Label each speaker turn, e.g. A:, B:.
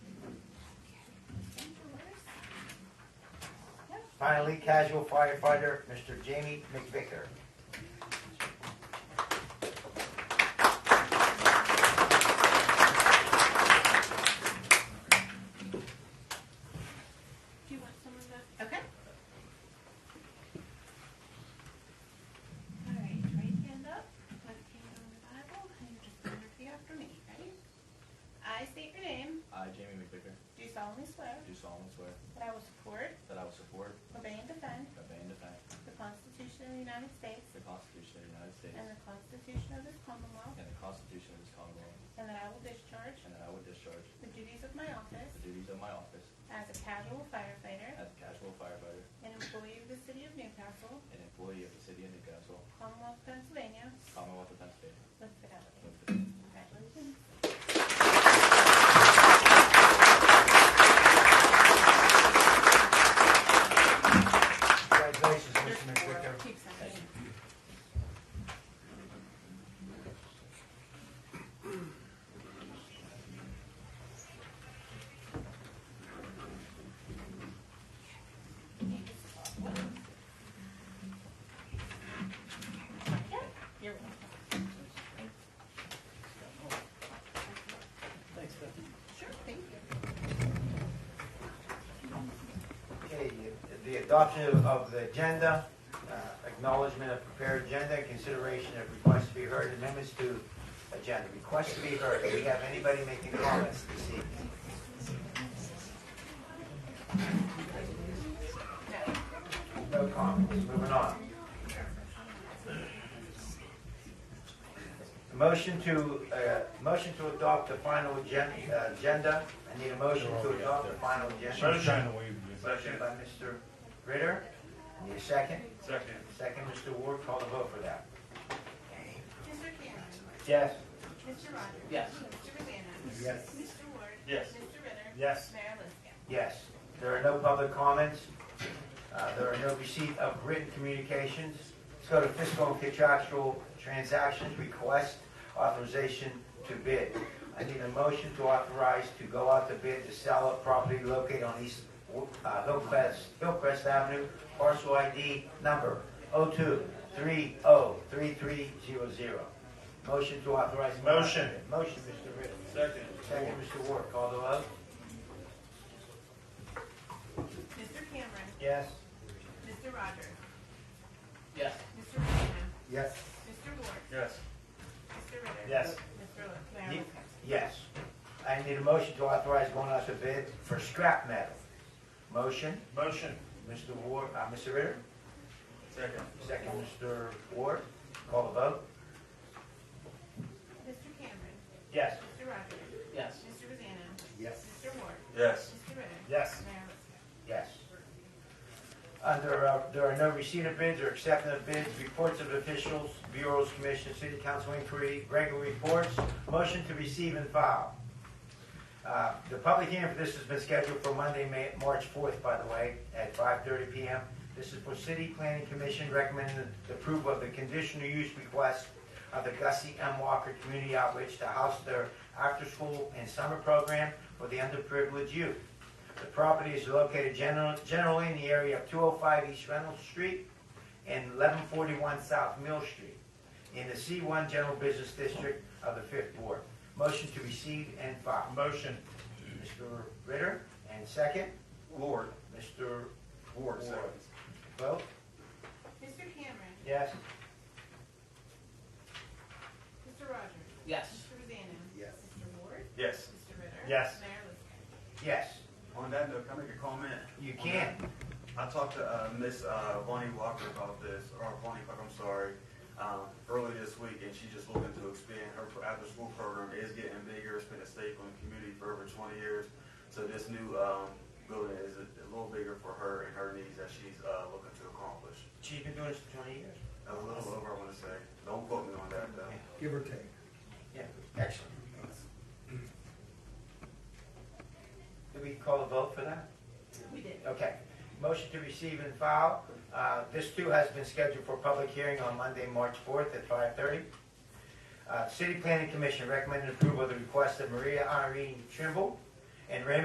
A: Finally, casual firefighter, Mr. Jamie McVicker.
B: Do you want some of that? Okay. All right, right hand up, left hand on the Bible, and you're just going to repeat after me. Ready? I state your name,
C: I, Jamie McVicker,
B: do solemnly swear
C: do solemnly swear
B: that I will support,
C: that I will support,
B: obey, and defend
C: obey, and defend
B: the Constitution of the United States
C: the Constitution of the United States
B: and the Constitution of this Commonwealth,
C: and the Constitution of this Commonwealth,
B: and that I will discharge
C: and that I will discharge
B: the duties of my office
C: the duties of my office
B: as a casual firefighter
C: as a casual firefighter
B: and employee of the City of Newcastle,
C: and employee of the City of Newcastle,
B: Commonwealth, Pennsylvania,
C: Commonwealth of Pennsylvania.
B: with fidelity.
C: With the-
B: Congratulations.
A: Congratulations,
B: There's
A: Mr.
B: four.
A: McVicker.
B: Keep signing. Yeah, You're welcome. Thanks, Sure, thank you.
A: Okay, the- the adoption of- of the agenda, uh, acknowledgement of prepared agenda, consideration of requests to be heard, amendments to agenda, requests to be heard. Do we have anybody making comments this evening? No comments, moving on. A Motion to, uh, motion to adopt the final agen- uh, agenda. I need a motion to adopt the final agenda.
D: Motion.
A: Motion by Mr. Ritter. Need a second?
D: Second.
A: Second, Mr. Ward, call the vote for that.
B: Mr. Cameron.
A: Yes.
B: Mr. Rogers.
C: Yes.
B: Mr. Rosanna.
A: Yes.
B: Mr. Ward.
D: Yes.
B: Mr. Ritter.
D: Yes.
B: Mayor Liscan.
A: Yes. There are no public comments. Uh, There are no receipt of written communications. Let's go to fiscal and contractual transactions, request authorization to bid. I need a motion to authorize to go out to bid to sell a property located on East uh, Hillcrest Hillcrest Avenue, parcel ID number 02303300. Motion to authorize.
D: Motion.
A: Motion, Mr. Ritter.
D: Second.
A: Second, Mr. Ward. Call the vote.
B: Mr. Cameron.
A: Yes.
B: Mr. Rogers.
C: Yes.
B: Mr. Rosanna.
A: Yes.
B: Mr. Ward.
D: Yes.
B: Mr. Ritter.
D: Yes.
B: Mr. Li- Mayor Liscan.
A: Yes. I need a motion to authorize going out to bid for scrap metal. Motion,
D: Motion.
A: Mr. Ward, uh, Mr. Ritter,
D: Second.
A: second, Mr. Ward, call the vote.
B: Mr. Cameron.
A: Yes.
B: Mr. Rogers.
C: Yes.
B: Mr. Rosanna.
A: Yes.
B: Mr. Ward.
D: Yes.
B: Mr. Ritter.
D: Yes.
B: Mayor Liscan.
A: Yes. Under, uh, there are no receipt of bids or acceptance of bids, reports of officials, bureaus, commission, city council inquiry, regular reports, motion to receive and file. Uh, The public hearing for this has been scheduled for Monday, May, March fourth, by the way, at five thirty PM. This is for City Planning Commission recommending the approval of the conditional use request of the Gussie M. Walker Community Outreach to house their after-school and summer program for the underprivileged youth. The property is located general- generally in the area of 205 East Reynolds Street and 1141 South Mill Street in the C1 General Business District of the Fifth Ward. Motion to receive and file.
D: Motion.
A: Mr. Ritter, and second,
D: Ward.
A: Mr.
D: Ward, second.
A: Vogt.
B: Mr. Cameron.
A: Yes?
B: Mr. Rogers.
C: Yes.
B: Mr. Rosanna. Yes. Mr. Ward.
D: Yes.
B: Mr. Ritter.
D: Yes.
B: Mayor Liscan.
A: Yes.
E: On that note, can I make a comment?
A: You can.
E: I talked to uh, Miss uh, Bonnie Walker about this, or Bonnie Buck, I'm sorry, um, earlier this week, and she's just looking to expand her pro- after-school program. Is getting bigger. It's been a staple in the community for over 20 years. So this new um, building is a, a little bigger for her and her needs that she's uh, looking to accomplish.
A: She's been doing this for 20 years.
E: A little over, I want to say. Don't quote me on that, though.
F: give or take.
A: Yeah, excellent. Did we call a vote for that?
B: We did.
A: Okay. Motion to receive and file. Uh, This too has been scheduled for public hearing on Monday, March 4th at 5:30. Uh, City Planning Commission recommended approval of the request of Maria Irene Trimble and Raymond